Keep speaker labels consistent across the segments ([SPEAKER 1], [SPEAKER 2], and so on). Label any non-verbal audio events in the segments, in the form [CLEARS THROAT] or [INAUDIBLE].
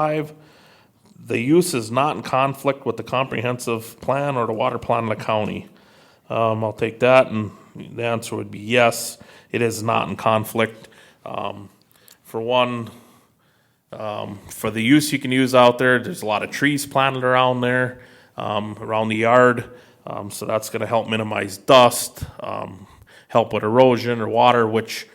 [SPEAKER 1] Five, the use is not in conflict with the comprehensive plan or the water plan of the county. Um, I'll take that, and the answer would be yes, it is not in conflict. Um, for one, for the use you can use out there. There's a lot of trees planted around there, um, around the yard. Um, so that's going to help minimize dust, um, help with erosion or water, which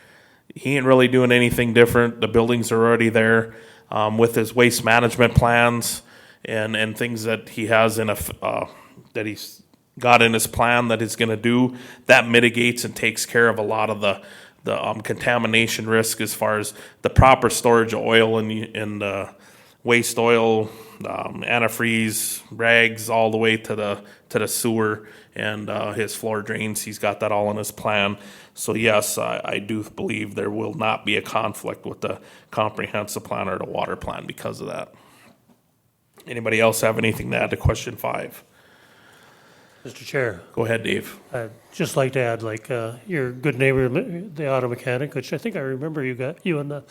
[SPEAKER 1] he ain't really doing anything different. The buildings are already there um, with his waste management plans and, and things that he has in a, f- uh, that he's got in his plan that he's going to do. That mitigates and takes care of a lot of the the um, contamination risk as far as the proper storage of oil and and uh, waste oil, um, antifreeze, rags, all the way to the to the sewer and uh, his floor drains. He's got that all in his plan. So yes, I, I do believe there will not be a conflict with the comprehensive plan or the water plan because of that. Anybody else have anything to add to question five?
[SPEAKER 2] Mr. Chair,
[SPEAKER 1] Go ahead, Dave.
[SPEAKER 2] I'd just like to add, like, uh, your good neighbor, li- the auto mechanic, which I think I remember you got, you and the,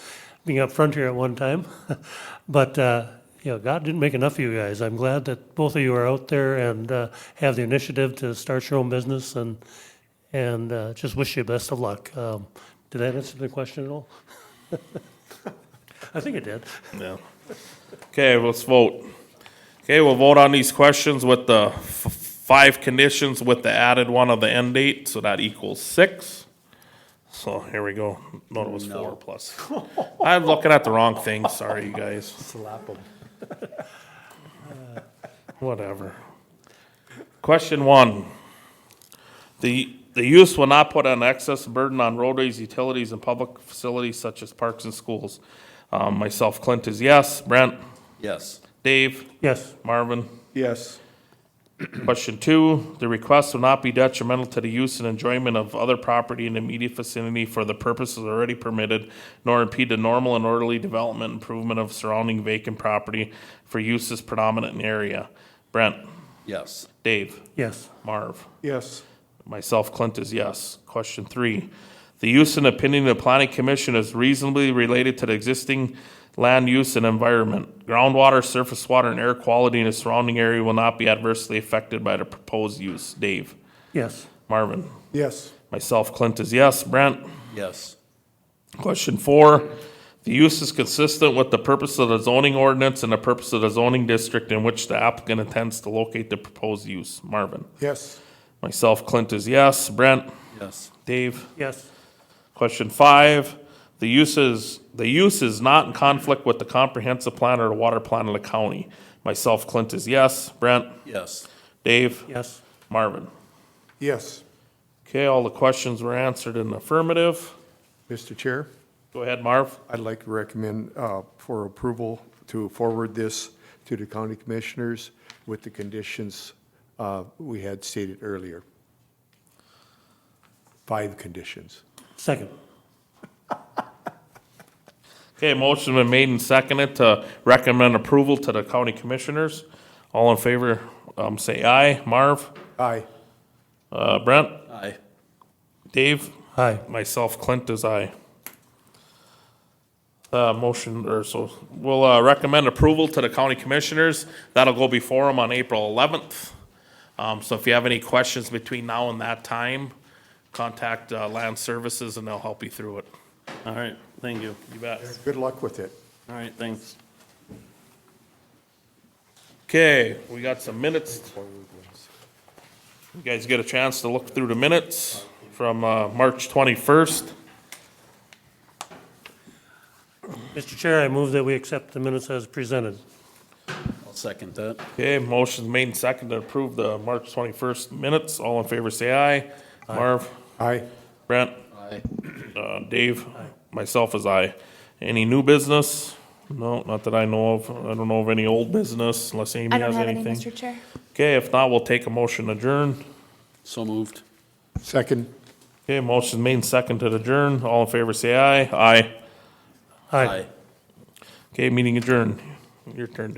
[SPEAKER 2] being up front here at one time. [LAUGHS] But, uh, you know, God didn't make enough of you guys. I'm glad that both of you are out there and uh, have the initiative to start your own business and, and uh, just wish you best of luck. Um, Did that answer the question at all? [LAUGHS] I think it did.
[SPEAKER 1] No. Okay, let's vote. Okay, we'll vote on these questions with the f- five conditions with the added one of the end date, so that equals six. So here we go. No, it was four plus. [LAUGHS] I'm looking at the wrong thing. Sorry, you guys. Whatever. Question one. The, the use will not put an excess burden on roadways, utilities, and public facilities such as parks and schools. Um, myself, Clint is yes. Brent?
[SPEAKER 3] Yes.
[SPEAKER 1] Dave?
[SPEAKER 2] Yes,
[SPEAKER 1] Marvin? [CLEARS THROAT]
[SPEAKER 3] Yes.
[SPEAKER 1] Question two, the request will not be detrimental to the use and enjoyment of other property in the immediate vicinity for the purposes already permitted, nor impede the normal and orderly development improvement of surrounding vacant property for uses predominant in the area. Brent,
[SPEAKER 3] Yes.
[SPEAKER 1] Dave,
[SPEAKER 2] yes,
[SPEAKER 1] Marv,
[SPEAKER 3] Yes.
[SPEAKER 1] myself, Clint is yes. Question three, the use and opinion of the planning commission is reasonably related to the existing land use and environment. Groundwater, surface water, and air quality in the surrounding area will not be adversely affected by the proposed use. Dave?
[SPEAKER 2] yes,
[SPEAKER 1] Marvin.
[SPEAKER 3] Yes.
[SPEAKER 1] Myself, Clint is yes. Brent?
[SPEAKER 3] Yes.
[SPEAKER 1] Question four, the use is consistent with the purpose of the zoning ordinance and the purpose of the zoning district in which the applicant intends to locate the proposed use. Marvin.
[SPEAKER 3] Yes.
[SPEAKER 1] Myself, Clint is yes. Brent?
[SPEAKER 3] Yes.
[SPEAKER 1] Dave?
[SPEAKER 2] yes,
[SPEAKER 1] Question five, the use is, the use is not in conflict with the comprehensive plan or the water plan of the county. Myself, Clint is yes. Brent?
[SPEAKER 3] Yes.
[SPEAKER 1] Dave?
[SPEAKER 2] yes,
[SPEAKER 1] Marvin.
[SPEAKER 4] Yes,
[SPEAKER 1] Okay, all the questions were answered in affirmative.
[SPEAKER 4] Mr. Chair,
[SPEAKER 1] Go ahead, Marv.
[SPEAKER 4] I'd like to recommend uh, for approval to forward this to the county commissioners with the conditions uh, we had stated earlier. Five conditions.
[SPEAKER 2] second,
[SPEAKER 1] Okay, motion been made and seconded to recommend approval to the county commissioners. All in favor, um, say aye. Marv,
[SPEAKER 4] Aye.
[SPEAKER 1] uh, Brent,
[SPEAKER 3] Aye.
[SPEAKER 1] Dave,
[SPEAKER 2] aye,
[SPEAKER 1] myself, Clint is aye. Uh, motion, or so, we'll, uh, recommend approval to the county commissioners. That'll go before them on April eleventh. Um, so if you have any questions between now and that time, contact, uh, Land Services and they'll help you through it.
[SPEAKER 5] All right, thank you.
[SPEAKER 1] You bet.
[SPEAKER 4] Good luck with it.
[SPEAKER 5] All right, thanks.
[SPEAKER 1] Okay, we got some minutes. You guys get a chance to look through the minutes from uh, March 21st.
[SPEAKER 2] Mr. Chair, I move that we accept the minutes as presented.
[SPEAKER 3] I'll second that.
[SPEAKER 1] Okay, motion made and seconded to approve the March 21st minutes. All in favor, say aye. Marv,
[SPEAKER 4] Aye.
[SPEAKER 1] Brent,
[SPEAKER 3] Aye.
[SPEAKER 1] uh, Dave, myself is aye. Any new business? No, not that I know of. I don't know of any old business unless Amy
[SPEAKER 6] I don't
[SPEAKER 1] has
[SPEAKER 6] have any,
[SPEAKER 1] anything.
[SPEAKER 6] Mr. Chair.
[SPEAKER 1] Okay, if not, we'll take a motion adjourn.
[SPEAKER 3] So moved.
[SPEAKER 4] Second.
[SPEAKER 1] Okay, motion made and seconded to adjourn. All in favor, say aye. Aye.
[SPEAKER 2] Aye.
[SPEAKER 3] Aye.
[SPEAKER 1] Okay, meeting adjourned. Your turn,